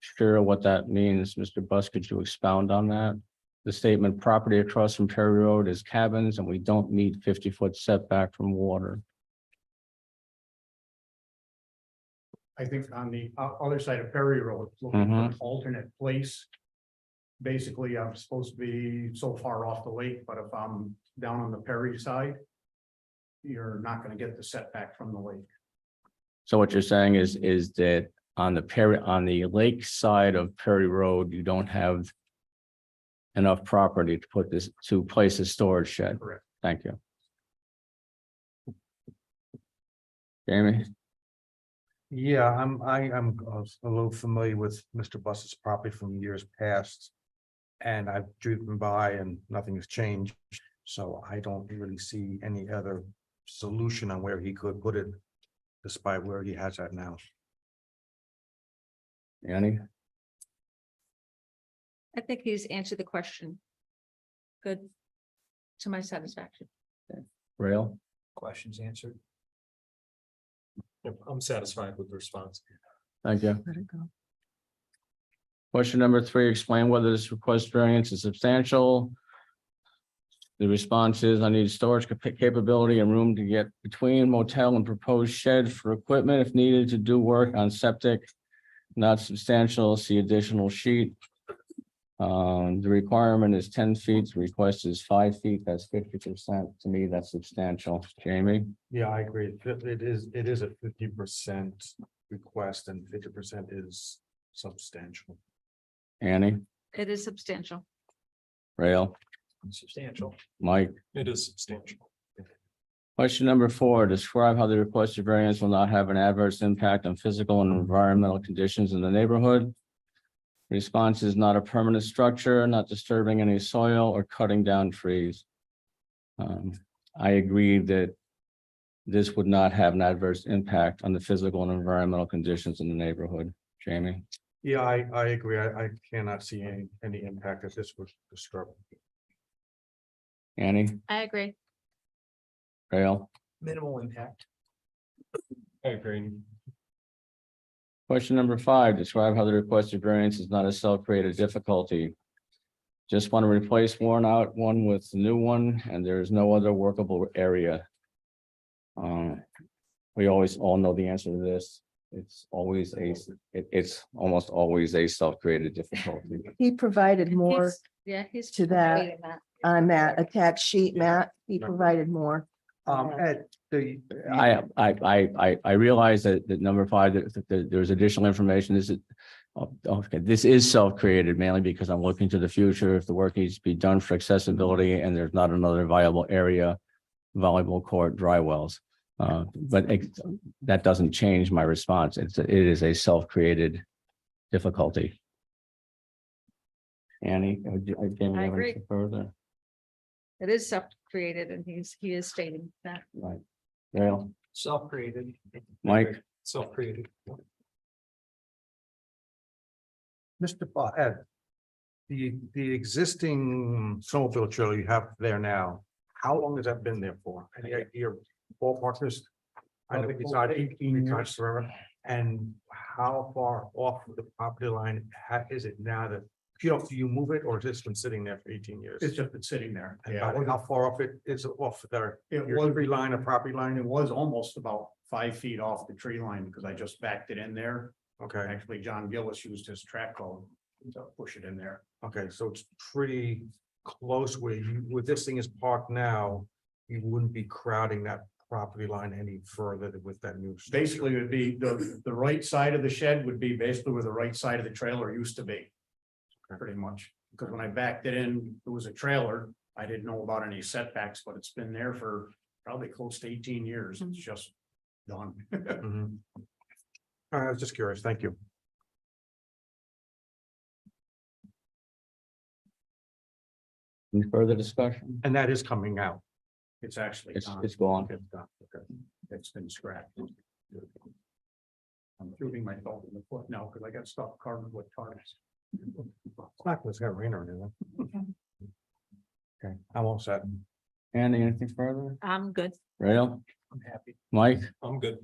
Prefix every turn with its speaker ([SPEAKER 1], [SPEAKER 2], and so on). [SPEAKER 1] sure what that means. Mr. Bus, could you expound on that? The statement, property across from Perry Road is cabins and we don't need fifty foot setback from water.
[SPEAKER 2] I think on the o- other side of Perry Road, looking for
[SPEAKER 1] Mhm.
[SPEAKER 2] an
[SPEAKER 3] Mm-hmm.
[SPEAKER 2] alternate place. Basically, I'm supposed to be so far off the lake, but if I'm down on the Perry side. You're not gonna get the setback from the lake.
[SPEAKER 1] So what you're saying is, is that on the Perry, on the lake side of Perry Road, you don't have enough property to put this, to place a storage shed?
[SPEAKER 2] Correct.
[SPEAKER 1] Thank you. Jamie?
[SPEAKER 3] Yeah, I'm, I, I'm uh, a little familiar with Mr. Bus's property from years past. And I've driven by and nothing has changed, so I don't really see any other solution on where he could put it. Despite where he has that now.
[SPEAKER 1] Annie?
[SPEAKER 4] I think he's answered the question. Good. To my satisfaction.
[SPEAKER 1] Rail?
[SPEAKER 5] Questions answered? Yep, I'm satisfied with the response.
[SPEAKER 1] Thank you.
[SPEAKER 4] Let it go.
[SPEAKER 1] Question number three, explain whether this request variance is substantial. The response is I need storage capa- capability and room to get between motel and proposed shed for equipment if needed to do work on septic. Not substantial, see additional sheet. Um, the requirement is ten feet, the request is five feet, that's fifty percent. To me, that's substantial. Jamie?
[SPEAKER 3] Yeah, I agree. It it is, it is a fifty percent request and fifty percent is substantial.
[SPEAKER 1] Annie?
[SPEAKER 4] It is substantial.
[SPEAKER 1] Rail?
[SPEAKER 5] Substantial.
[SPEAKER 1] Mike?
[SPEAKER 5] It is substantial.
[SPEAKER 1] Question number four, describe how the requested variance will not have an adverse impact on physical and environmental conditions in the neighborhood. Response is not a permanent structure, not disturbing any soil or cutting down trees. Um, I agree that this would not have an adverse impact on the physical and environmental conditions in the neighborhood. Jamie,
[SPEAKER 3] Yeah, I, I agree. I, I cannot see any, any impact that this would disturb.
[SPEAKER 1] Annie,
[SPEAKER 4] I agree.
[SPEAKER 1] Rail?
[SPEAKER 5] Minimal impact. I agree.
[SPEAKER 1] Question number five, describe how the requested variance is not a self-created difficulty. Just want to replace worn out one with new one, and there is no other workable area. Um, we always all know the answer to this. It's always a, it- it's almost always a self-created difficulty.
[SPEAKER 6] He provided more
[SPEAKER 4] He's- Yeah, he's.
[SPEAKER 6] to that.
[SPEAKER 4] creating
[SPEAKER 6] on that attached sheet,
[SPEAKER 3] Yeah.
[SPEAKER 6] Matt. He
[SPEAKER 3] No.
[SPEAKER 6] provided more.
[SPEAKER 3] Um, Ed, the.
[SPEAKER 1] I, I, I, I, I realize that, that number five, that, that- that there's additional information, this is. oh, Okay, this is self-created mainly because I'm looking to the future, if the work needs to be done for accessibility and there's not another viable area. Volleyball court, dry wells, uh, but ex- that doesn't change my response, it's, it is a self-created difficulty. Annie, uh, do- uh, Jamie,
[SPEAKER 4] I
[SPEAKER 1] you have
[SPEAKER 4] agree.
[SPEAKER 1] anything further?
[SPEAKER 4] It is self-created and he's, he is stating that.
[SPEAKER 1] Right. Dale,
[SPEAKER 5] Self-created.
[SPEAKER 1] Mike?
[SPEAKER 5] Self-created.
[SPEAKER 3] Mr. Bo- Ed. The, the existing snowmobile trailer you have there now, how long has that been there for? Any idea, ballpark this? I know
[SPEAKER 2] Probably
[SPEAKER 3] it's
[SPEAKER 2] over
[SPEAKER 3] not
[SPEAKER 2] 18
[SPEAKER 3] it's not
[SPEAKER 2] years.
[SPEAKER 3] forever. And how far off the property line ha- is it now that, you know, do you move it or has this been sitting there for eighteen years?
[SPEAKER 2] It's just been sitting there.
[SPEAKER 3] And how how far off it is off there?
[SPEAKER 2] It
[SPEAKER 3] Your
[SPEAKER 2] was,
[SPEAKER 3] every line of property
[SPEAKER 2] it
[SPEAKER 3] line,
[SPEAKER 2] was almost about five feet off the tree line because I just backed it in there.
[SPEAKER 3] okay,
[SPEAKER 2] Actually, John Gillis used his track code to push it in there.
[SPEAKER 3] okay, so it's pretty close where you, where this thing is parked now. You wouldn't be crowding that property line any further than with that new. structure.
[SPEAKER 2] Basically, it would be the, the right side of the shed would be basically where the right side of the trailer used to be. Pretty much, because when I backed it in, it was a trailer. I didn't know about any setbacks, but it's been there for probably close to eighteen years. It's just done.
[SPEAKER 3] Mhm. All right, I was just curious, thank you.
[SPEAKER 1] Any further discussion?
[SPEAKER 3] And that is coming out.
[SPEAKER 2] It's actually
[SPEAKER 4] Uh,
[SPEAKER 1] It's,
[SPEAKER 2] gone.
[SPEAKER 1] it's gone.
[SPEAKER 2] It's gone. Okay. It's been scrapped. I'm shooting myself in the foot now because I got stuck carving with tarps.
[SPEAKER 3] It's not, it's gonna rain or anything. Okay, I'm all set.
[SPEAKER 1] Andy, anything further?
[SPEAKER 4] I'm good.
[SPEAKER 1] Rail,
[SPEAKER 5] I'm happy.
[SPEAKER 1] Mike,
[SPEAKER 5] I'm good.